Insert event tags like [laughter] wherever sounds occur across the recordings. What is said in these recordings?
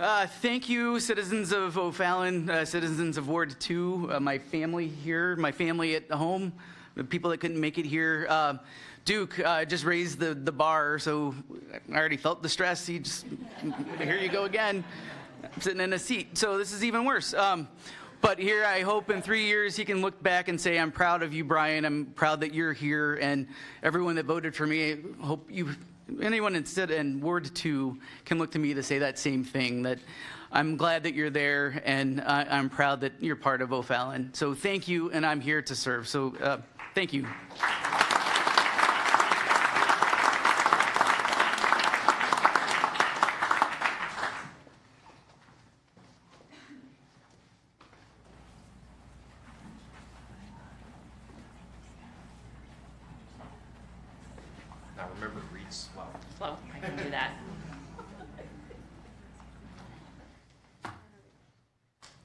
Uh, thank you, citizens of O'Fallon, uh, citizens of Ward 2, uh, my family here, my family at home, the people that couldn't make it here. Uh, Duke uh, just raised the, the bar, so I already felt the stress. He just, [laughs] here you go again. I'm sitting in a seat, so this is even worse. Um, but here, I hope in three years he can look back and say, I'm proud of you, Brian. I'm proud that you're here. And everyone that voted for me, I hope you, anyone instead in Ward 2 can look to me to say that same thing that I'm glad that you're there and I, I'm proud that you're part of O'Fallon. So thank you, and I'm here to serve. So uh, thank you. Now remember, read slow. Slow, I can do that.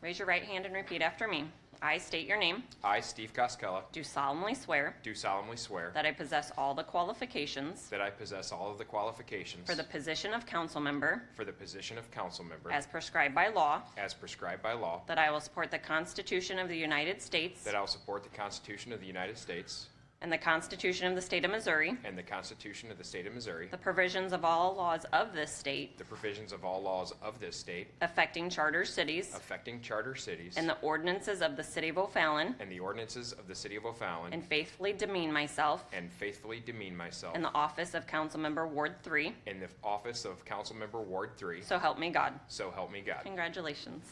Raise your right hand and repeat after me. I state your name, I, Steve Costello, do solemnly swear do solemnly swear that I possess all the qualifications that I possess all of the qualifications for the position of council member for the position of council member as prescribed by law, as prescribed by law, that I will support the Constitution of the United States that I will support the Constitution of the United States and the Constitution of the State of Missouri, and the Constitution of the State of Missouri, the provisions of all laws of this state the provisions of all laws of this state affecting charter cities affecting charter cities, and the ordinances of the city of O'Fallon, and the ordinances of the City of and O'Fallon, faithfully demean myself and faithfully demean myself in the office of council member Ward 3 in the office of council member Ward 3, So help me God. so help me God. Congratulations.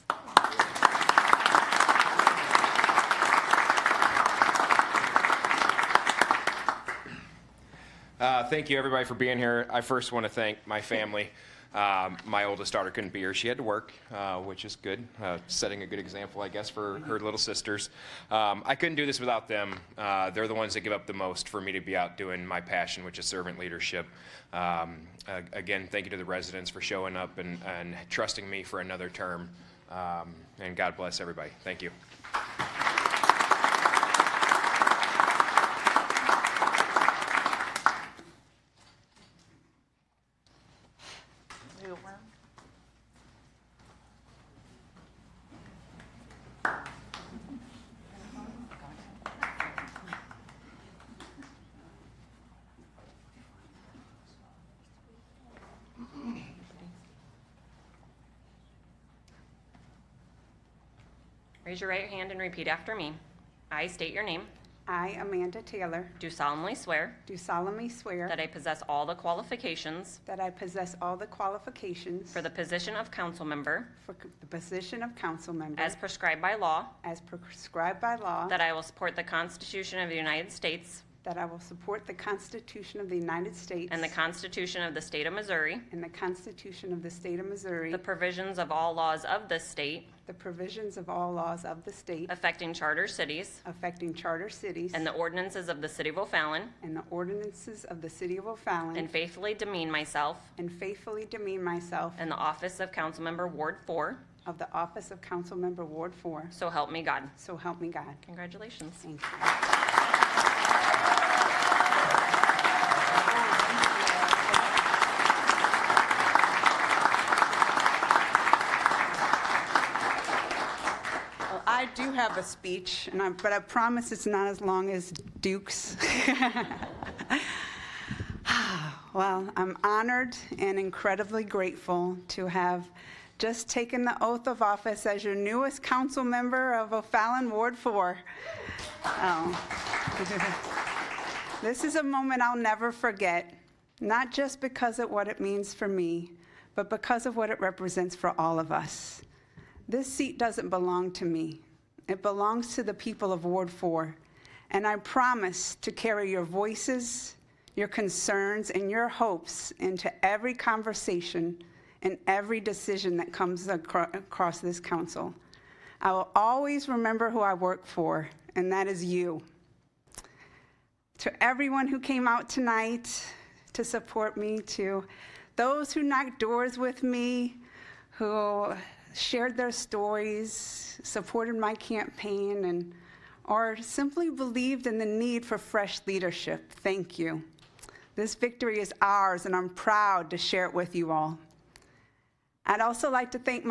Uh, thank you, everybody, for being here. I first want to thank my family. Um, my oldest daughter couldn't be here. She had to work, uh, which is good, uh, setting a good example, I guess, for her little sisters. Um, I couldn't do this without them. Uh, they're the ones that give up the most for me to be out doing my passion, which is servant leadership. Um, a- again, thank you to the residents for showing up and, and trusting me for another term. Um, and God bless everybody. Thank you. Raise your right hand and repeat after me. I state your name, I, Amanda Taylor, do solemnly swear do solemnly swear that I possess all the qualifications that I possess all the qualifications for the position of council member for c- the position of council member as prescribed by law, as prescribed by law, that I will support the Constitution of the United States that I will support the Constitution of the United States and the Constitution of the State of Missouri, and the Constitution of the State of Missouri, the provisions of all laws of this state the provisions of all laws of the state affecting charter cities, affecting charter cities, and the ordinances of the City of O'Fallon, and the ordinances of the City of O'Fallon, and faithfully demean myself and faithfully demean myself in the office of council member Ward 4. of the office of council member Ward 4. So help me God. So help me God. Congratulations. Thank you. Well, I do have a speech, and I, but I promise it's not as long as Duke's. [laughs] Well, I'm honored and incredibly grateful to have just taken the oath of office as your newest council member of O'Fallon Ward 4. Oh. This is a moment I'll never forget, not just because of what it means for me, but because of what it represents for all of us. This seat doesn't belong to me. It belongs to the people of Ward 4. And I promise to carry your voices, your concerns, and your hopes into every conversation and every decision that comes acro- across this council. I will always remember who I work for, and that is you. To everyone who came out tonight to support me, to those who knocked doors with me, who shared their stories, supported my campaign, and or simply believed in the need for fresh leadership, thank you. This victory is ours, and I'm proud to share it with you all. I'd also like to thank